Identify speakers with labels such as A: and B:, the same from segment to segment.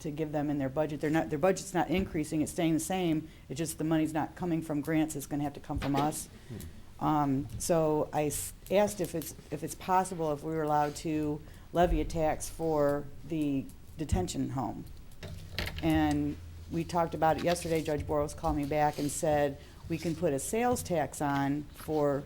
A: to give them in their budget. They're not, their budget's not increasing, it's staying the same. It's just the money's not coming from grants, it's gonna have to come from us. Um, so I s- asked if it's, if it's possible if we were allowed to levy a tax for the detention home. And we talked about it yesterday, Judge Boros called me back and said, we can put a sales tax on for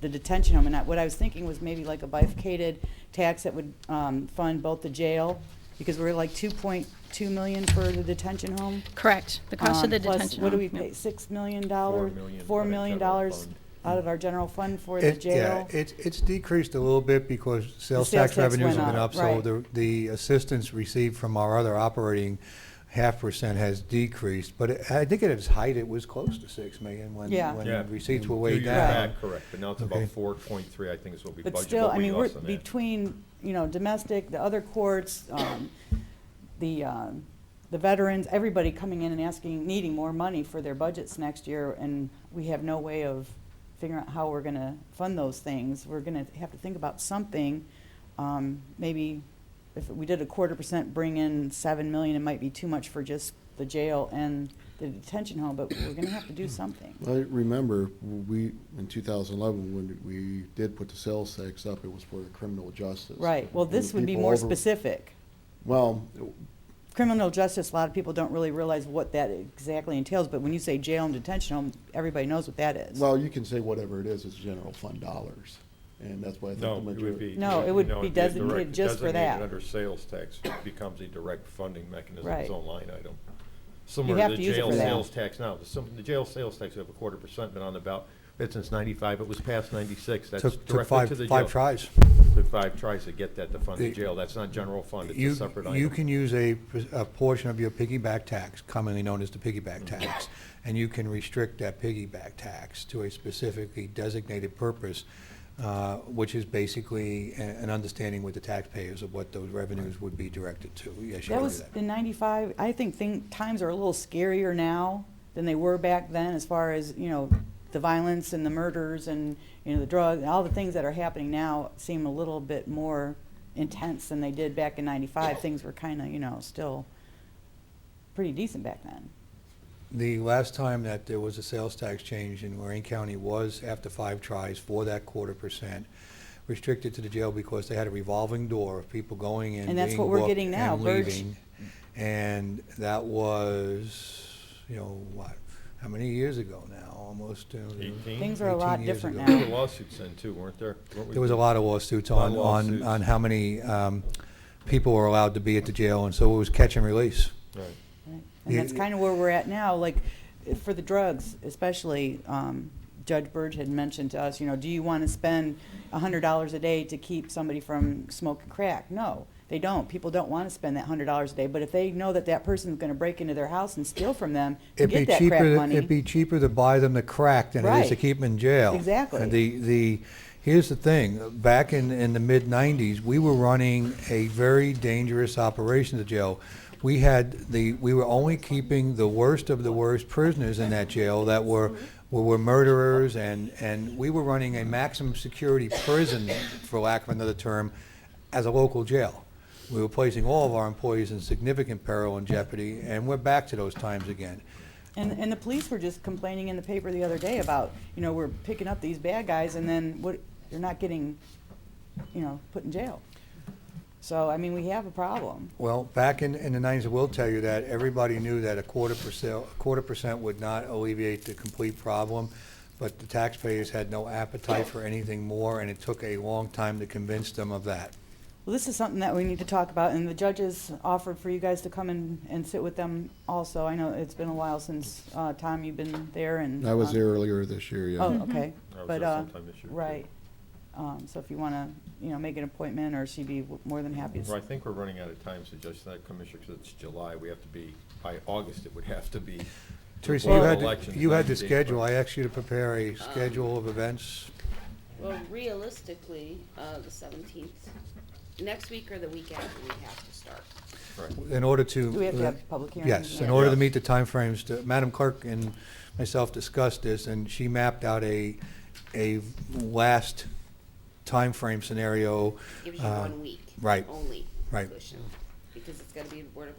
A: the detention home. And I- what I was thinking was maybe like a bifurcated tax that would um, fund both the jail, because we're like 2.2 million for the detention home.
B: Correct, the
A: Um,
B: cost of the
A: plus,
B: detention.
A: What do
B: home,
A: we
B: yeah.
A: pay, $6 million? dollars-
C: million
A: $4
C: out of
A: million
C: general
A: dollars
C: fund.
A: out of our general fund for the
D: It- Yeah,
A: jail?
D: it's, it's decreased a little bit because sales
A: sales
D: tax
A: tax
D: revenues
A: went
D: have been
A: up,
D: up, so
A: right.
D: the, the assistance received from our other operating half percent has decreased, but it- I think at its height, it was close to six million when,
A: Yeah.
C: Yeah.
D: when receipts were
C: Two
D: way
C: years
D: down.
C: back, Correct, but now it's about
D: Okay.
C: four point three, I think is what we budgeted.
A: But still,
C: but
A: I
C: we
A: mean, we're
C: lost on that.
A: between, you know, domestic, the other courts, um, the, um, the veterans, everybody coming in and asking, needing more money for their budgets next year, and we have no way of figuring out how we're gonna fund those things. We're gonna have to think about something, um, maybe if we did a quarter percent, bring in seven million, it might be too much for just the jail and the detention home, but we're gonna have to do something.
E: I remember we, in 2011, when we did put the sales tax up, it was for the criminal justice.
A: Right, well,
E: And
A: this would be
E: people
A: more
E: over-
A: specific.
E: Well,
A: criminal justice, a lot of people don't really realize what that exactly entails, but when you say jail and detention home, everybody knows what that is.
E: well, you can say whatever it is, it's general fund dollars, and that's why I think
C: No,
E: the
C: it
E: majority.
C: would be.
A: No, it would
C: it'd
A: be
C: a
A: designated
C: direct-
A: just for
C: designated
A: that.
C: Under sales tax it becomes a direct funding mechanism,
A: Right.
C: its own line item. Similar
A: have
C: to the
A: to use it
C: jail
A: for that.
C: sales tax now, the sim- the jail sales tax, we have a quarter percent been on the ballot, but since ninety-five, it was passed ninety-six, that's
D: Took, took
C: directly to
D: five,
C: the jail.
D: five tries.
C: Took five tries to get that to fund the
D: The-
C: jail, that's not general fund, it's
D: You,
C: a separate item.
D: you can use a, pers- a portion of your piggyback tax, commonly known as the piggyback tax, and you can restrict that piggyback tax to a specifically designated purpose, uh, which is basically a- an understanding with the taxpayers of what those revenues would be directed to. Yes, you
A: That
D: can do
A: was
D: that.
A: in ninety-five, I think thing, times are a little scarier now than they were back then as far as, you know, the violence and the murders and, you know, the drug, all the things that are happening now seem a little bit more intense than they did back in ninety-five. Things were kinda, you know, still pretty decent back then.
D: The last time that there was a sales tax change in Lorraine County was after five tries for that quarter percent, restricted to the jail because they had a revolving door of people going in,
A: And that's
D: being
A: what we're
D: booked,
A: getting now,
D: and
A: Birch.
D: leaving. And that was, you know, what, how many years ago now? Almost uh,
C: Eighteen?
A: Things are a lot
D: 18 years
A: different
D: ago.
A: now.
C: There were lawsuits in too, weren't there? Weren't we-
D: There was a lot of lawsuits
C: lot
D: on,
C: of
D: on,
C: lawsuits.
D: on how many um, people were allowed to be at the jail, and so it was catch and release.
C: Right.
A: Right. And
D: Yeah,
A: that's
D: yeah.
A: kind of where we're at now, like, eh, for the drugs especially, um, Judge Burge had mentioned to us, you know, do you want to spend a hundred dollars a day to keep somebody from smoking crack? No, they don't. People don't want to spend that hundred dollars a day, but if they know that that person's going to break into their house and steal from them to
D: It'd
A: get
D: be
A: that crack
D: cheaper,
A: money.
D: it'd be cheaper to buy them the crack than it is to
A: Right.
D: keep them in jail.
A: Exactly.
D: And The, the, here's the thing, back in, in the mid-nineties, we were running a very dangerous operation at the jail. We had the, we were only keeping the worst of the worst prisoners in that jail that were, were were murderers and, and we were running a maximum security prison, for lack of another term, as a local jail. We were placing all of our employees in significant peril and jeopardy, and we're back to those times again.
A: And, and the police were just complaining in the paper the other day about, you know, we're picking up these bad guys and then what, they're not getting, you know, put in jail. So, I mean, we have a problem.
D: Well, back in, in the nineties, I will tell you that everybody knew that a quarter percent, a quarter percent would not alleviate the complete problem, but the taxpayers had no appetite for anything more, and it took a long time to convince them of that.
A: Well, this is something that we need to talk about, and the judges offered for you guys to come and, and sit with them also. I know it's been a while since, uh, Tom, you've been there and.
E: I was
A: uh,
E: there earlier this year, yeah.
A: Oh, okay.
C: I was
A: But,
C: there
A: uh,
C: sometime this year, too.
A: right. Um, so if you wanna, you know, make an appointment, or she'd be w- more than happy
C: Well, I
A: to.
C: think we're running out of time, so just that, Commissioner, because it's July, we have to be, by August, it would have to be.
D: Teresa,
C: before
D: you
C: the
D: had, the-
C: election,
D: you had the
C: 90 days,
D: schedule,
C: right?
D: I asked you to prepare a
A: Um,
D: schedule of events.
F: Well, realistically, uh, the seventeenth, next week or the week after, we have to start.
C: Right.
D: In order
A: Do we have to have
D: to,
A: public hearings?
D: yes, in
A: Yeah.
D: order to
C: Yes.
D: meet the timeframes, to- Madam Clerk and myself discussed this, and she mapped out a, a last timeframe scenario.
F: Gives you
D: uh,
F: one week.
D: right,
F: Only.
D: right.
F: cushion. because it's gotta be Board of